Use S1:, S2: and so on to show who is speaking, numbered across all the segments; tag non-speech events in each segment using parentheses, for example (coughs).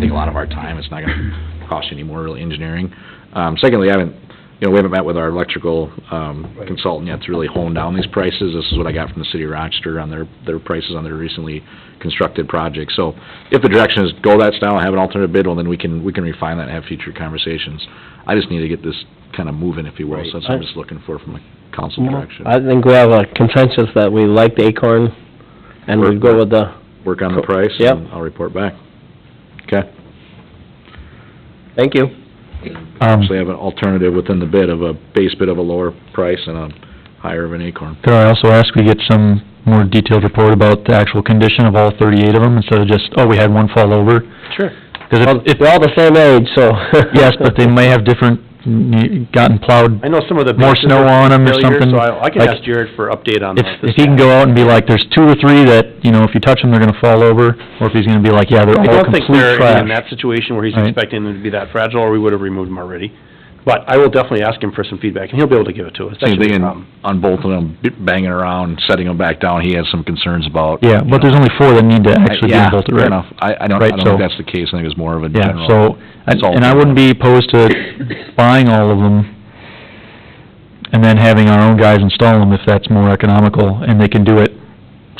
S1: lot of our time, it's not gonna cost you any more really engineering. Um, secondly, I haven't, you know, we haven't met with our electrical, um,
S2: Right.
S1: consultant yet to really hone down these prices. This is what I got from the city of Rochester on their, their prices on their recently constructed projects. So if the direction is go that style, and have an alternative bid, well, then we can, we can refine that and have future conversations. I just need to get this kind of moving, if you will, so that's what I'm just looking for from a council direction.
S3: I think we have a consensus that we like the Acorn, and we go with the,
S1: Work on the price,
S3: Yep.
S1: and I'll report back. Okay?
S3: (laughs) thank you.
S4: Um,
S1: Actually have an alternative within the bid of a base bid of a lower price and a higher of an acorn.
S4: could I also ask we get some more detailed report about the actual condition of all thirty-eight of them instead of just, oh, we had one fall over?
S3: Sure.
S4: Cause
S3: Well,
S4: if,
S3: We're all the same age, so.
S4: yes, but they may have different, mm, gotten plowed
S5: I know some of the.
S4: more
S5: bases
S4: snow
S5: are
S4: on 'em or
S5: familiar,
S4: something,
S5: So I, I can
S4: like-
S5: ask Jared for update on
S4: if,
S5: that.
S4: if he can go out and be like, there's two or three that, you know, if you touch them, they're gonna fall over, or if he's gonna be like, yeah, they're
S5: I
S4: all
S5: don't think
S4: complete
S5: they're any in
S4: trash.
S5: that situation where he's
S4: Right.
S5: expecting them to be that fragile, or we would have removed them already. But I will definitely ask him for some feedback, and he'll be able to give it to us. That
S1: Same
S5: should be
S1: thing
S5: a
S1: in-
S5: problem.
S1: on both of them, b- banging around, setting them back down, he has some concerns about.
S4: Yeah, but there's only four that need to actually be
S1: Yeah,
S4: bolted,
S1: fair
S4: right?
S1: enough. I, I don't, I
S4: Right,
S1: don't
S4: so-
S1: think that's the case, I think it's more of a
S4: Yeah,
S1: general.
S4: so, and and I wouldn't be opposed to buying all of them and then having our own guys install them if that's more economical and they can do it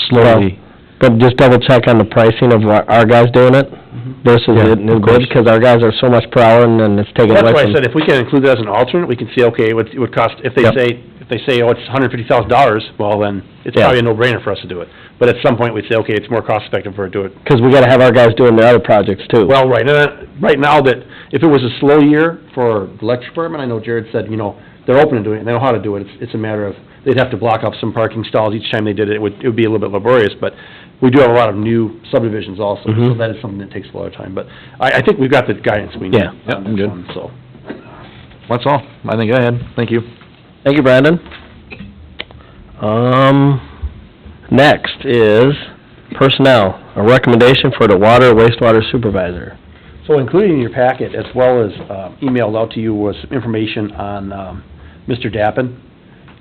S4: slowly.
S3: But just double check on the pricing of our our guys doing it
S5: Mm-hmm.
S3: versus
S4: Yeah,
S3: it new
S4: of
S3: bid,
S4: course.
S3: because our guys are so much per hour and then it's taken
S5: That's
S3: away
S5: why I
S3: from.
S5: said if we can include that as an alternate, we can say, okay, it would, it would cost, if they
S4: Yep.
S5: say, if they say, oh, it's hundred fifty thousand dollars, well, then it's
S3: Yeah.
S5: probably a no-brainer for us to do it. But at some point, we'd say, okay, it's more cost-effective for us to do it.
S3: Because we gotta have our guys doing their other projects too.
S5: Well, right, uh, right now that, if it was a slow year for the electric department, I know Jared said, you know, they're open to doing it, they know how to do it. It's, it's a matter of, they'd have to block off some parking stalls each time they did it. It would, it would be a little bit laborious, but we do have a lot of new subdivisions also, so
S1: Mm-hmm.
S3: Mhm.
S5: that is something that takes a lot of time. But I, I think we've got the guidance we need
S3: Yeah.
S1: Yep,
S5: on
S1: I'm
S5: this
S1: good.
S5: one, so.
S1: That's all, I think I had, thank you.
S3: Thank you, Brandon. Um, next is personnel, a recommendation for the water wastewater supervisor.
S5: So included in your packet, as well as um, emailed out to you, was information on um, Mr. Dappin.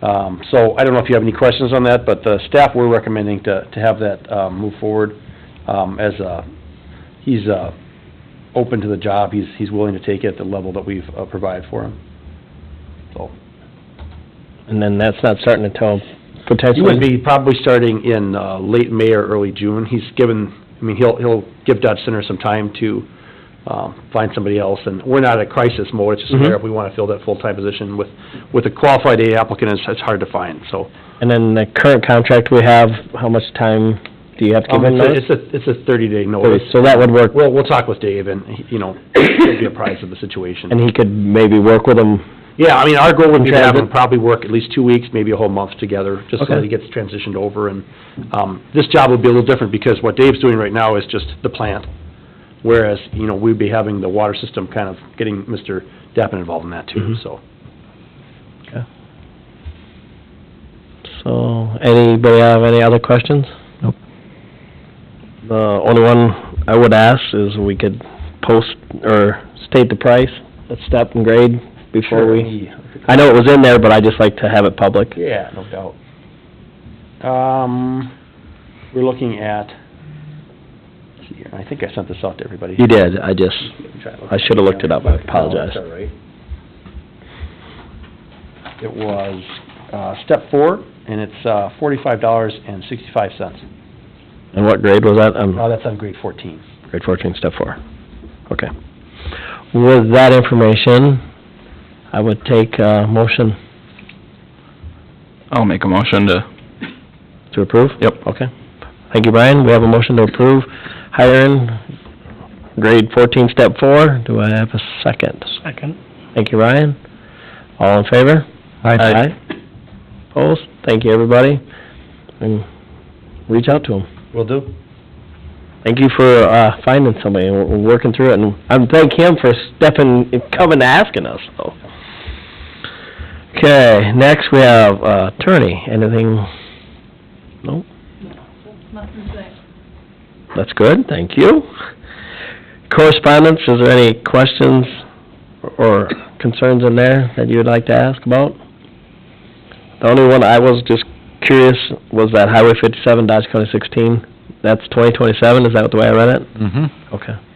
S5: Um, So I don't know if you have any questions on that, but the staff, we're recommending to, to have that um, move forward um, as a, he's uh, open to the job, he's, he's willing to take it at the level that we've uh, provided for him. So,
S3: And then that's not starting until
S5: he
S3: potentially.
S5: would be probably starting in uh, late May or early June. He's given, I mean, he'll, he'll give Dodge Center some time to um, find somebody else, and we're not at crisis mode, it's just a
S3: Mm-hmm.
S5: matter of we want to fill that full-time position with, with a qualified A applicant, it's, it's hard to find, so.
S3: And then the current contract we have, how much time do you have to give
S5: Um,
S3: him notice?
S5: It's a, it's a thirty-day notice.
S3: So that would work,
S5: Well, we'll talk with Dave, and, he- you know, (coughs) he'll be apprised of the situation.
S3: and he could maybe work with him.
S5: Yeah, I mean, our goal would be to have
S3: Transit.
S5: them probably work at least two weeks, maybe a whole month together, just so
S3: Okay.
S5: that he gets transitioned over, and, um, this job would be a little different, because what Dave's doing right now is just the plant, whereas, you know, we'd be having the water system kind of getting Mr. Dappin involved in that too,
S3: Mhm.
S5: so.
S3: So, anybody have any other questions?
S4: Nope.
S3: The only one I would ask is we could post or state the price, a step and grade before we. I know it was in there, but I just like to have it public.
S5: Yeah, no doubt. Um, we're looking at, let's see here, I think I sent this out to everybody.
S3: You did, I just, I should have looked it up, I
S5: That's
S3: apologize.
S5: all right. It was, uh, step four, and it's, uh, forty-five dollars and sixty-five cents.
S3: Mm-hmm. And what grade was that? Um,
S5: Oh, that's on grade fourteen.
S3: Grade fourteen, step four. Okay. With that information, I would take a motion
S6: I'll make a motion to,
S3: to approve.
S6: Yep.
S3: Okay. Thank you, Brian. We have a motion to approve hiring grade fourteen, step four. Do I have a second?
S2: Second.
S3: Thank you, Ryan. All in favor? Aye. Opposed? Thank you, everybody. And reach out to them.
S5: Will do.
S3: Thank you for, uh, finding somebody and w- working through it, and I thank him for stepping, coming to asking us, so. Okay, next we have uh, attorney, anything? No? That's good, thank you. Correspondence, is there any questions or concerns in there that you would like to ask about? The only one I was just curious was that Highway fifty-seven Dodge County sixteen, that's twenty twenty-seven, is that the way I read it?
S1: Mm-hmm.
S3: Okay.